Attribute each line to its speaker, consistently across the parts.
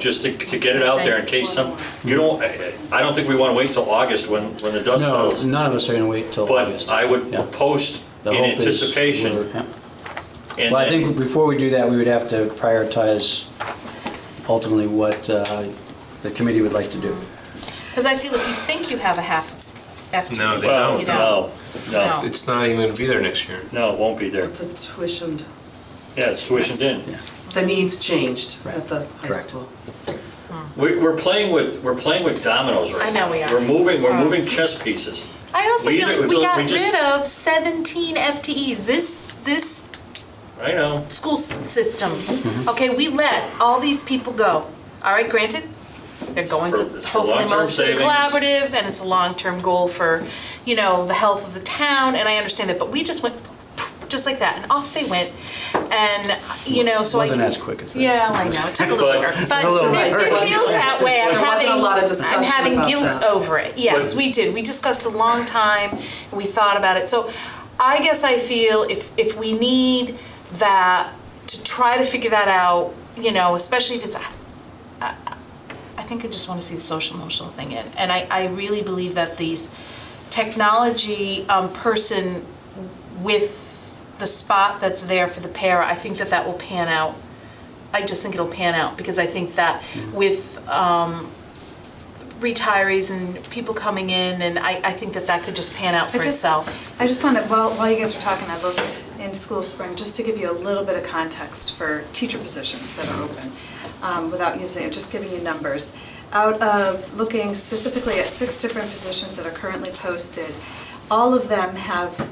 Speaker 1: just to, to get it out there in case some, you don't, I- I don't think we want to wait till August when, when the dust
Speaker 2: No,
Speaker 1: settles.
Speaker 2: none of us are going to wait till
Speaker 1: But
Speaker 2: August.
Speaker 1: I would
Speaker 2: Yeah.
Speaker 1: post
Speaker 2: The
Speaker 1: in
Speaker 2: hope is
Speaker 1: anticipation.
Speaker 2: we're- yeah.
Speaker 1: and-
Speaker 2: Well, I think before we do that, we would have to prioritize ultimately what uh, the committee would like to do.
Speaker 3: Because I feel if you think you have a half
Speaker 4: No,
Speaker 3: FTE,
Speaker 4: they
Speaker 1: Well,
Speaker 3: you don't.
Speaker 1: no, no,
Speaker 4: It's not even going to be there next year.
Speaker 1: no, it won't be there.
Speaker 5: It's a tuitioned,
Speaker 1: Yeah, it's tuitioned in.
Speaker 5: the needs changed
Speaker 2: Right.
Speaker 5: at the high
Speaker 2: Correct.
Speaker 5: school.
Speaker 1: We, we're playing with, we're playing with dominoes right
Speaker 3: I
Speaker 1: now.
Speaker 3: know we are.
Speaker 1: We're moving, we're
Speaker 3: Um,
Speaker 1: moving chess pieces.
Speaker 3: I also
Speaker 1: We
Speaker 3: feel
Speaker 1: either-
Speaker 3: like we
Speaker 1: we
Speaker 3: got
Speaker 1: just-
Speaker 3: rid of 17 FTEs. This this
Speaker 1: I know.
Speaker 3: school s- system.
Speaker 1: Mm-hmm.
Speaker 3: Okay, we let all these people go. All right, granted, they're going
Speaker 1: for-
Speaker 3: to
Speaker 1: it's for
Speaker 3: hopefully
Speaker 1: long-term
Speaker 3: mostly
Speaker 1: savings.
Speaker 3: collaborative, and it's a long-term goal for you know the health of the town. And I understand that, but we just went poof, just like that, and off they went. And you know, so
Speaker 2: Wasn't
Speaker 3: I,
Speaker 2: as quick as that.
Speaker 3: Yeah, I know. It took a little
Speaker 1: But-
Speaker 3: longer, but
Speaker 2: a little
Speaker 3: it,
Speaker 5: bit.
Speaker 3: it feels that way. I'm
Speaker 5: There wasn't
Speaker 3: having
Speaker 5: a lot of
Speaker 3: I'm
Speaker 5: discussion
Speaker 3: having
Speaker 5: about
Speaker 3: guilt
Speaker 5: that.
Speaker 3: over it. Yes,
Speaker 1: But-
Speaker 3: we did. We discussed a long time. and We thought about it. So I guess I feel if if we need that to try to figure that out, you know, especially if it's I, I- I think I just want to see the social emotional thing in, and I I really believe that these technology um, person with the spot that's there for the para, I think that that will pan out. I just think it'll pan out because I think that with um, retirees and people coming in, and I, I think that that could just pan out for
Speaker 6: I just-
Speaker 3: itself.
Speaker 6: I just wanted, while, while you guys were talking, I looked in school spring, just to give you a little bit of context for teacher positions that are open, um, without using, just giving you numbers. Out of looking specifically at six different positions that are currently posted, all of them have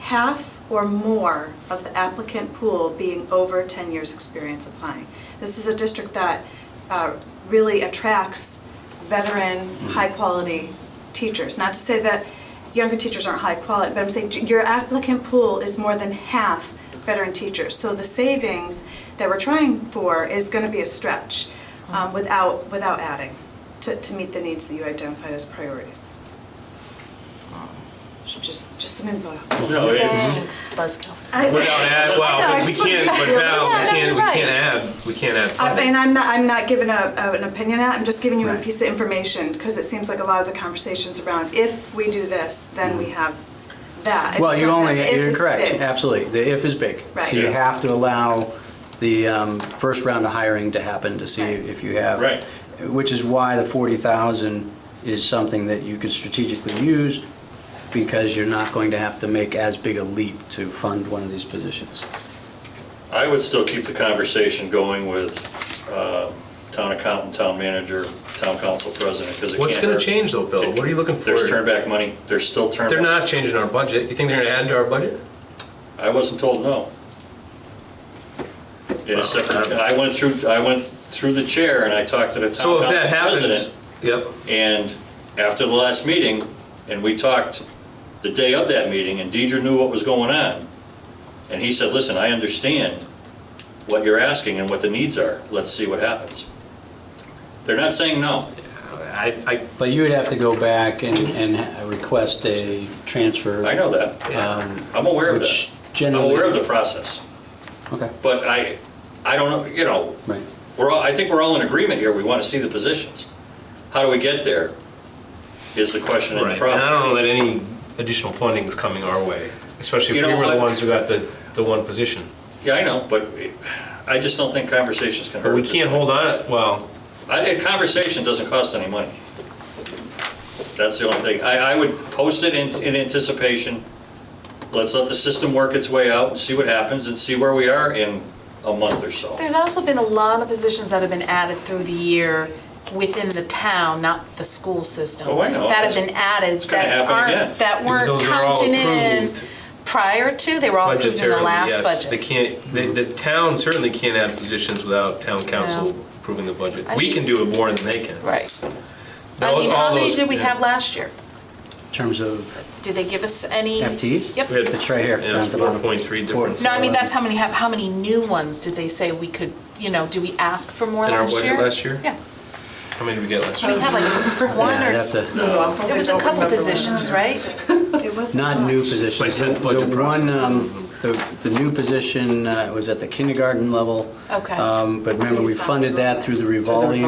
Speaker 6: half or more of the applicant pool being over 10 years' experience applying. This is a district that uh, really attracts veteran, high-quality teachers. Not to say that younger teachers aren't high quality, but I'm saying j- your applicant pool is more than half veteran teachers. So the savings that we're trying for is going to be a stretch um, without, without adding to, to meet the needs that you identified as priorities. So Just, just some info.
Speaker 1: No, it's,
Speaker 3: Thanks, Buzzkill.
Speaker 6: I-
Speaker 4: Without ads,
Speaker 6: No, I
Speaker 4: wow, we
Speaker 6: just wanna
Speaker 4: can't,
Speaker 6: be
Speaker 4: but
Speaker 6: clear.
Speaker 4: now,
Speaker 3: Yeah,
Speaker 4: we
Speaker 3: no,
Speaker 4: can't, we
Speaker 3: you're
Speaker 4: can't add, we can't add
Speaker 6: I-
Speaker 4: funding.
Speaker 6: And I'm not, I'm not giving a, a- an opinion out, I'm just giving you a
Speaker 2: Right.
Speaker 6: piece of information, because it seems like a lot of the conversations around, if we do this, then
Speaker 4: Mm.
Speaker 6: we have that. I
Speaker 2: Well,
Speaker 6: just
Speaker 2: you
Speaker 6: don't
Speaker 2: only,
Speaker 6: have if
Speaker 2: you're
Speaker 6: is
Speaker 2: correct,
Speaker 6: big.
Speaker 2: absolutely. The if is big.
Speaker 6: Right.
Speaker 2: So you
Speaker 6: Yeah.
Speaker 2: have to allow the um, first round of hiring to happen to see
Speaker 6: Right.
Speaker 2: if you have.
Speaker 1: Right.
Speaker 2: Which is why the 40,000 is something that you could strategically use because you're not going to have to make as big a leap to fund one of these positions.
Speaker 1: I would still keep the conversation going with uh, town accountant, town manager, town council president, because it can't
Speaker 4: What's going
Speaker 1: hurt.
Speaker 4: to change though, Bill? What are you looking for?
Speaker 1: There's turn back money, there's still turn
Speaker 4: They're
Speaker 1: back.
Speaker 4: not changing our budget. You think they're going to add to our budget?
Speaker 1: I wasn't told no. In a separate, I went through, I went through the chair and I talked to the town
Speaker 4: So if that
Speaker 1: council
Speaker 4: happens,
Speaker 1: president.
Speaker 4: yep,
Speaker 1: And after the last meeting, and we talked the day of that meeting, and Deidre knew what was going on. And he said, listen, I understand what you're asking and what the needs are. Let's see what happens. They're not saying no.
Speaker 4: I, I,
Speaker 2: But you would have to go back and, and request a transfer.
Speaker 1: I know that.
Speaker 2: um,
Speaker 1: I'm aware of
Speaker 2: Which
Speaker 1: that. I'm
Speaker 2: generally.
Speaker 1: aware of the process.
Speaker 2: Okay,
Speaker 1: But I, I don't know, you know,
Speaker 2: right.
Speaker 1: We're all, I think we're all in agreement here, we want to see the positions. How do we get there is the question and the
Speaker 4: right. And I
Speaker 1: problem.
Speaker 4: don't know that any additional funding is coming our way, especially if
Speaker 1: You
Speaker 4: we
Speaker 1: know
Speaker 4: were the
Speaker 1: what?
Speaker 4: ones who got the, the one position.
Speaker 1: Yeah, I know, but I just don't think conversations can hurt.
Speaker 4: But we
Speaker 1: this.
Speaker 4: can't hold on, well,
Speaker 1: I, a conversation doesn't cost any money. That's the only thing. I, I would post it in, in anticipation. Let's let the system work its way out and see what happens and see where we are in a month or so.
Speaker 3: There's also been a lot of positions that have been added through the year within the town, not the school system.
Speaker 1: Oh, I know.
Speaker 3: That have been added
Speaker 1: gonna
Speaker 3: that
Speaker 1: happen
Speaker 3: aren't,
Speaker 1: again.
Speaker 3: that weren't
Speaker 4: Those are all
Speaker 3: counted in
Speaker 4: approved.
Speaker 3: prior to, they were all approved in the
Speaker 4: budgetarily,
Speaker 3: last
Speaker 4: yes. They
Speaker 3: budget.
Speaker 4: can't, the, the town certainly can't add positions without town council
Speaker 3: No.
Speaker 4: approving the budget.
Speaker 3: I
Speaker 4: We can
Speaker 3: just-
Speaker 4: do it more than they can.
Speaker 3: Right. I
Speaker 4: Those-
Speaker 3: mean,
Speaker 4: all
Speaker 3: how many
Speaker 4: those-
Speaker 3: did we
Speaker 4: yeah.
Speaker 3: have last year?
Speaker 2: In terms of
Speaker 3: Did they give us any?
Speaker 2: FTEs?
Speaker 3: Yep.
Speaker 4: We had-
Speaker 2: It's right here,
Speaker 4: Yeah,
Speaker 2: down at the bottom.
Speaker 4: 4.3
Speaker 2: Four.
Speaker 4: difference.
Speaker 3: No, I mean, that's how many, have. how many new ones did they say we could, you know, do we ask for more
Speaker 4: In our
Speaker 3: last year?
Speaker 4: budget last year?
Speaker 3: Yeah,
Speaker 4: How many did we get last
Speaker 3: we
Speaker 4: year?
Speaker 3: had like one
Speaker 2: Yeah, I'd
Speaker 3: or,
Speaker 2: have to-
Speaker 5: It's not awful.
Speaker 3: there was a
Speaker 5: They don't
Speaker 3: couple
Speaker 5: remember.
Speaker 3: positions, right?
Speaker 6: It wasn't
Speaker 2: Not new
Speaker 6: much.
Speaker 2: positions.
Speaker 4: My tenth budget
Speaker 2: The one,
Speaker 4: process.
Speaker 2: um, the, the new position uh, was at the kindergarten level.
Speaker 3: Okay.
Speaker 2: Um, But remember, we funded that through the revolving